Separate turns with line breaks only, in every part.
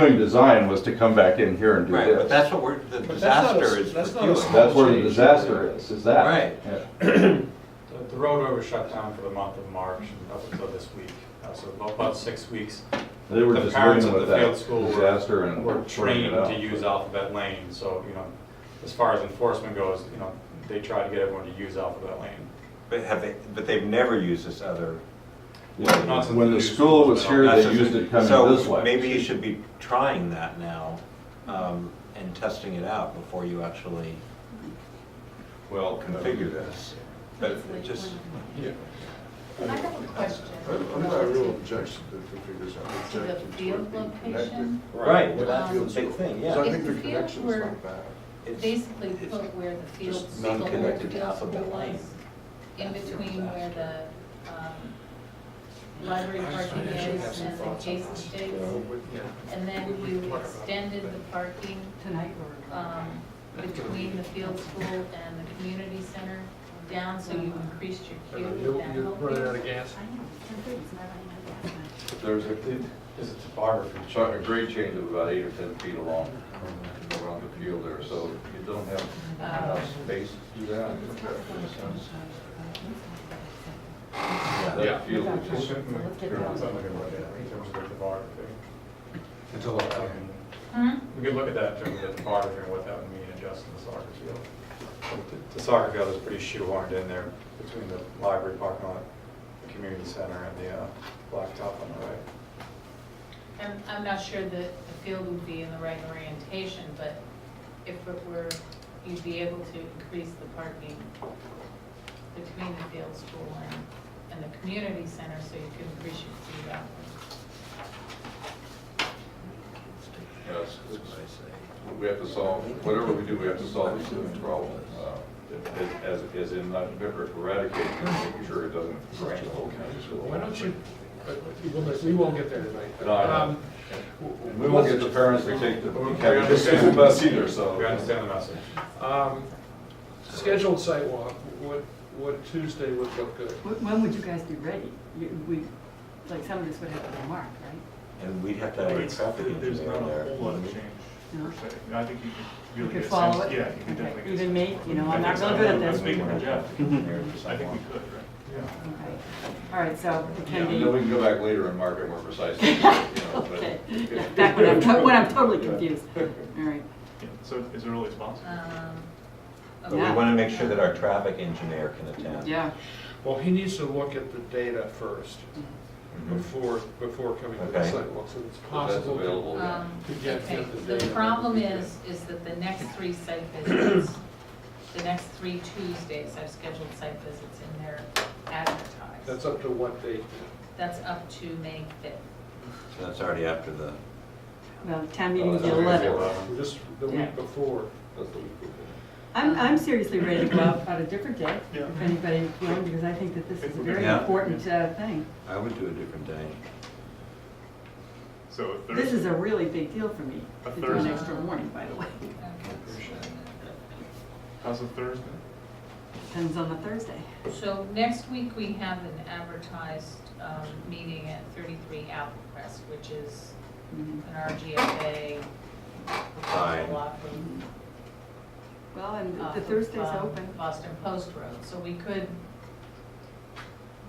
doing design was to come back in here and do
Right, but
this.
that's what we're, the
But that's not a-
disaster is
that's
with
not a
you.
small
That's where the disaster is, is that.
Right.
Yeah.
The- The road over shut down for the month of March up until this week, Uh, so about- about six weeks.
They were
The
just
parents
dealing
at
with
the
that
field school were-
disaster and
We're
sorting it
trained to
out.
use Alphabet Lane, so, you know, as far as enforcement goes, you know, they try to get everyone to use Alphabet Lane.
But have they, but they've never used this other.
Yeah.
Not since
When the
the new
school was
school's been
here,
out.
they
That's
used
just-
it coming this
So
way.
maybe you should be trying that now um, and testing it out before you actually
Well,
configure this. But it just,
Yeah.
I have a question.
I've got a real objection to the figures out.
To the
Objections
field
would be
location?
connected.
right, well,
Um,
that's the big thing,
Because I
yeah.
If
think the
the field
connection's
were-
not bad.
It's-
Basically
it's-
put where the field,
just
the old
non-connected
field school
alphabet line.
was, in between where the, um, library parking is and the Jason Stakes. And then you extended the parking,
tonight or?
um, between the field school and the community center down, so you increased your queue with that whole field.
gas?
I don't know, something's not running out of gas.
There's a,
Is it topography?
a grade change of about eight or 10 feet along around the field there, so you don't have uh,
enough
space to do that.
yeah.
That field
would just-
In terms of the topography.
Hmm?
We could look at that in terms of the topography and what that would mean adjusting the soccer field. The- The soccer field is pretty shoehorned in there between the library parking lot, the community center, and the uh, blacktop on the right.
I'm, I'm not sure that the field would be in the right orientation, but if it were, you'd be able to increase the parking between the field school and, and the community center, so you could increase your speed up.
Yes, We have to solve, whatever we do, we have to solve the student problem. uh, As, as in not eradicating, it, making sure it doesn't drain the whole county school.
Why don't you, but we won't- we won't get there tonight.
No, I know.
Um,
And We won't get the parents to take the,
We
carry the school
understand.
bus either, so.
We understand the message.
um, Scheduled sidewalk, what, what Tuesday would look good?
Wh- When would you guys be ready? You- We, like, some of this would have to be marked, right?
And we'd have to have a traffic
There's
engineer
not a
there.
whole lot of change
No?
per se. And I think you could
You
really
could
get a sense.
follow it?
Yeah, you could
Okay.
definitely. get a
Even
sense.
me, you
I
know, I'm
think
not
so.
real good at
I
this.
think we
Okay.
could, yeah. I think we
Jeff.
could, right? Yeah.
All right, so it
And
can
then we
be,
can go back later and mark it more precisely. you know, but-
okay, Yeah, back when I'm, to- when I'm totally confused. All right,
Yeah, So as early as possible.
Um,
But we
okay.
want to make sure that our traffic engineer can attend.
yeah.
Well, he needs to look at the data first
Mhm.
before, before coming to the
Okay.
sidewalks, and it's
If that's
possible.
available, yeah.
Um,
To get
Okay,
the
the
data.
problem is, is that the next three site visits, the next three Tuesdays, I've scheduled site visits and they're advertised.
That's up to what date.
That's up to May fifth.
So that's already after the,
Well, town meeting's the
Oh, that's-
eleventh.
This, the
Yeah.
week before.
That's the week before.
I'm, I'm seriously ready to go out on a different day,
Yeah.
if anybody, you know, because I think that this is a very
Yeah.
important uh, thing.
I would do a different day.
So a
This is
Thursday,
a really big deal for me,
A
to do an
Thursday.
extra warning, by the way.
how's a Thursday?
Depends on the Thursday.
So next week, we have an advertised um, meeting at 33 Apple Crest, which is
Mhm.
an RGFA.
Fine.
block from,
Well, and
off
the
of,
Thursday's
um,
open.
Boston Post Road, so we could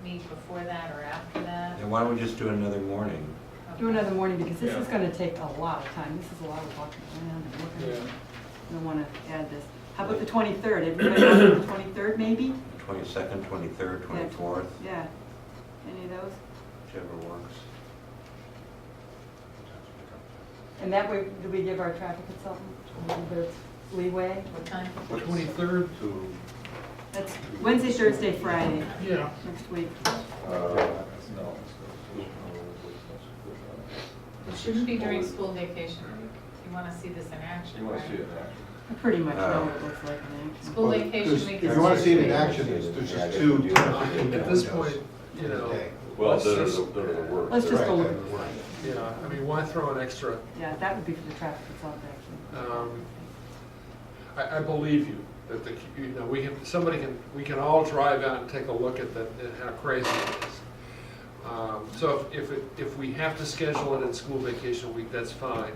meet before that or after that.
Then why don't we just do another morning?
Do another morning, because this is
Yeah.
gonna take a lot of time, this is a lot of walking around and looking.
Yeah.
I don't wanna add this. How about the twenty-third, everybody want to do the twenty-third maybe?
Twenty-second, twenty-third, twenty-fourth,
Yeah, any of those?
whichever works.
And that way, do we give our traffic consultant a little bit of leeway?
What time?
Twenty-third,
To,
That's Wednesday, Thursday, Friday,
yeah.
next week.
uh, no. it's not.
It shouldn't be during school vacation week. You want to see this in
You
action,
want to see
right?
it now?
I pretty much know what
Oh.
it looks like in action.
School vacation week.
If
is
you want to
next
see it in
week.
action, there's there's just
Yeah, I
two
guess we do.
10 or 15
Uh, At this
windows
point, you
in a
know.
day.
Well,
let's
there are
just-
the, there are the
Oh.
words.
Let's just go look
Right.
at the Friday.
Yeah, I mean, why throw an extra?
Yeah, that would be for the traffic consultant, actually.
um, I, I believe you, that the, you know, we can, somebody can, we can all drive out and take a look at the, at how crazy it is. Um, So if, if, it- if we have to schedule it in school vacation week, that's fine.